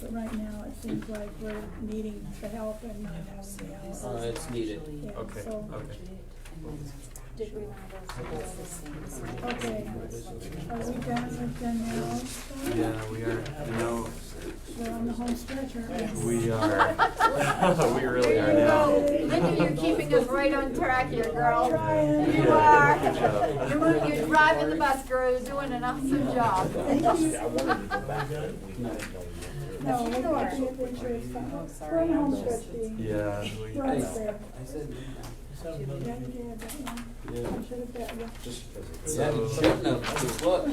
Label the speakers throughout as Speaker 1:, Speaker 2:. Speaker 1: But right now, it seems like we're needing the help and not having the help.
Speaker 2: Uh, it's needed.
Speaker 1: Yeah,
Speaker 3: Okay,
Speaker 1: so-
Speaker 3: okay.
Speaker 4: Did we want to go through all the things?
Speaker 1: Okay, are we done with the now? stuff?
Speaker 3: Yeah, we are, you know,
Speaker 1: We're on the home stretch, aren't we?
Speaker 3: we are, we really are now.
Speaker 5: There you go. Linda, you're keeping us right on track here, girl.
Speaker 1: Trying.
Speaker 5: You
Speaker 3: Yeah,
Speaker 5: are.
Speaker 3: good job.
Speaker 5: You're, you're driving the bus, girl. You're doing an awesome job.
Speaker 1: No, we're not the adventurous stuff. We're on the home stretch, Dee.
Speaker 3: Yeah, we,
Speaker 1: We're almost there.
Speaker 2: I said,
Speaker 1: Yeah, you did that one.
Speaker 3: yeah.
Speaker 1: I should have bet you.
Speaker 2: yeah, you shouldn't have, just look,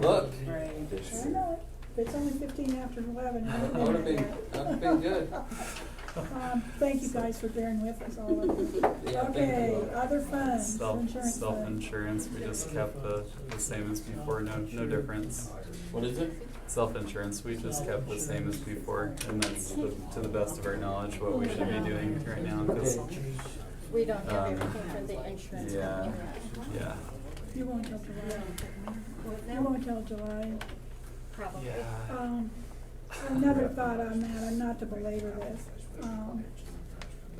Speaker 2: look,
Speaker 1: I know it. If It's only fifteen after eleven. I
Speaker 2: that
Speaker 1: would've
Speaker 2: would've
Speaker 1: been
Speaker 2: been,
Speaker 1: there.
Speaker 2: that would've been good.
Speaker 1: Um, thank you guys for bearing with us all of this.
Speaker 2: Yeah, thank
Speaker 1: Okay,
Speaker 2: you.
Speaker 1: other funds,
Speaker 3: Self,
Speaker 1: insurance fund.
Speaker 3: self-insurance, we just kept the, the same as before, no, no difference.
Speaker 2: What is it?
Speaker 3: Self-insurance, we just kept the same as before, and that's the- to the best of our knowledge what we should be doing right now, 'cause,
Speaker 4: We don't have
Speaker 3: Um,
Speaker 4: everything for the insurance
Speaker 3: yeah.
Speaker 4: company.
Speaker 3: yeah.
Speaker 1: You won't tell July. You won't tell July.
Speaker 4: Probably.
Speaker 1: Um, another thought on that, and not to belabor this, um,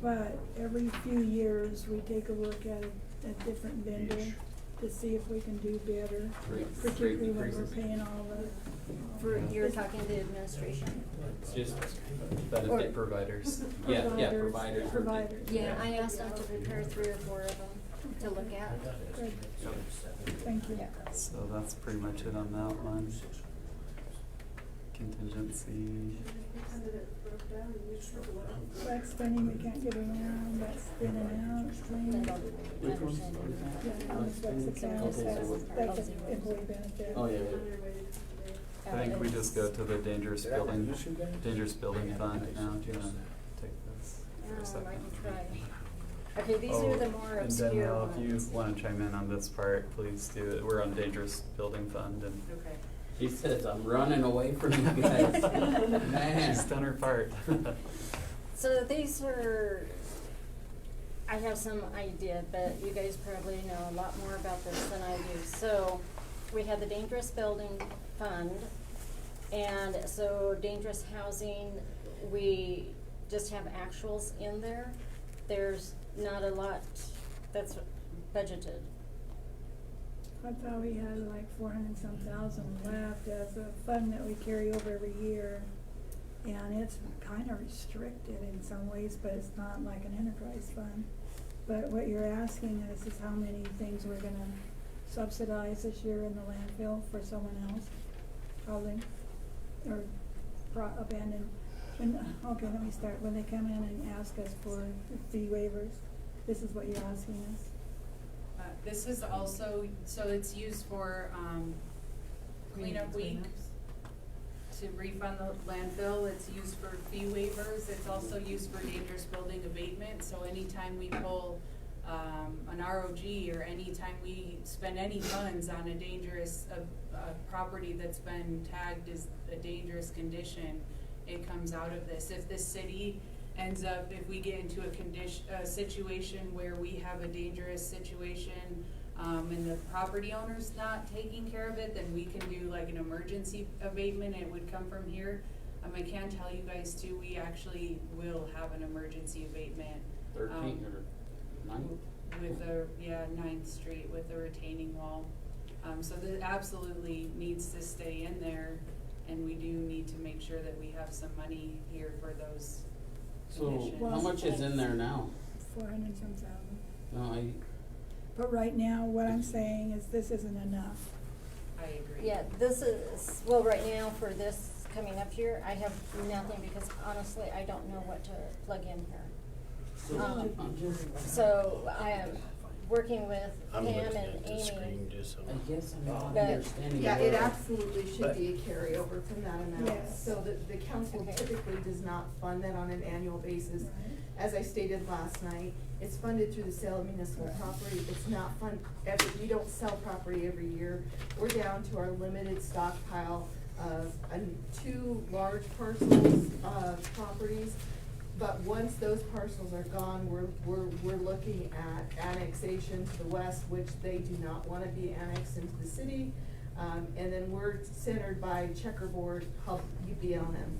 Speaker 1: but every few years, we take a look at a, a different vendor to see if we can do better,
Speaker 2: Three- three
Speaker 1: particularly when we're
Speaker 2: increases.
Speaker 1: paying all the.
Speaker 4: For, you're talking to administration.
Speaker 2: It's just,
Speaker 3: Benefit providers.
Speaker 2: yeah, yeah,
Speaker 1: Providers,
Speaker 2: providers. we're-
Speaker 1: providers.
Speaker 4: Yeah, I asked them to prepare three or four of them to look at.
Speaker 1: Good. Thank you.
Speaker 3: So that's pretty much it on that one. Contingency,
Speaker 1: Flex spending, we can't get around, that's been announced,
Speaker 4: They
Speaker 1: claims,
Speaker 4: don't understand.
Speaker 1: yeah, on the flex accounts, that's, that's an employee benefit.
Speaker 2: Oh, yeah.
Speaker 3: I think we just go to the dangerous building, dangerous building fund now, do you wanna take this for a
Speaker 4: Um,
Speaker 3: second?
Speaker 4: I can try. Okay, these are the
Speaker 3: Oh,
Speaker 4: more
Speaker 3: and
Speaker 4: obscure
Speaker 3: Danielle,
Speaker 4: ones.
Speaker 3: if you wanna chime in on this part, please do it, we're on dangerous building fund and
Speaker 2: She says, I'm running away from you guys. Man.
Speaker 3: she's done her part.
Speaker 4: So these are, I have some idea, but you guys probably know a lot more about this than I do. So, we had the dangerous building fund, and so dangerous housing, we just have actuals in there. There's not a lot that's budgeted.
Speaker 1: I thought we had like four hundred and some thousand left as a fund that we carry over every year. And it's kinda restricted in some ways, but it's not like an enterprise fund. But what you're asking is, is how many things we're gonna subsidize this year in the landfill for someone else, housing, or pro- abandoned. When, okay, let me start, when they come in and ask us for fee waivers, this is what you're asking us?
Speaker 6: Uh, This is also, so it's used for, um, cleanup week to refund the landfill. It's used for fee waivers. It's also used for dangerous building abatement. So anytime we pull, um, an ROG or anytime we spend any funds on a dangerous, a, a property that's been tagged as a dangerous condition, it comes out of this. If the city ends up, if we get into a condition, a situation where we have a dangerous situation, um, and the property owner's not taking care of it, then we can do like an emergency abatement, it would come from here. Um, I can tell you guys too, we actually will have an emergency abatement
Speaker 2: Thirteen or nine?
Speaker 6: with the, yeah, Ninth Street with the retaining wall. Um, so that absolutely needs to stay in there, and we do need to make sure that we have some money here for those
Speaker 2: So,
Speaker 6: conditions.
Speaker 2: how much is in there now?
Speaker 1: Four hundred and some thousand.
Speaker 2: No, I,
Speaker 1: But right now, what I'm saying is this isn't enough.
Speaker 6: I agree.
Speaker 4: Yeah, this is, well, right now for this coming up here, I have nothing because honestly, I don't know what to plug in here. Um, So I am working with Pam
Speaker 7: I'm looking
Speaker 4: and
Speaker 7: at the
Speaker 4: Amy.
Speaker 7: screen just so.
Speaker 2: I guess I'm not
Speaker 4: But-
Speaker 2: understanding.
Speaker 5: Yeah, it
Speaker 2: where-
Speaker 5: absolutely should be a carryover from that amount,
Speaker 1: Yes.
Speaker 5: so that the council
Speaker 4: Okay.
Speaker 5: typically does not fund that on an annual basis.
Speaker 1: Right.
Speaker 5: As I stated last night, it's funded through the sale of municipal property, it's not fun, every, we don't sell property every year. We're down to our limited stockpile of, um, two large parcels of properties. But once those parcels are gone, we're, we're, we're looking at annexation to the west, which they do not wanna be annexed into the city. Um, and then we're centered by checkerboard, hub, UBLM.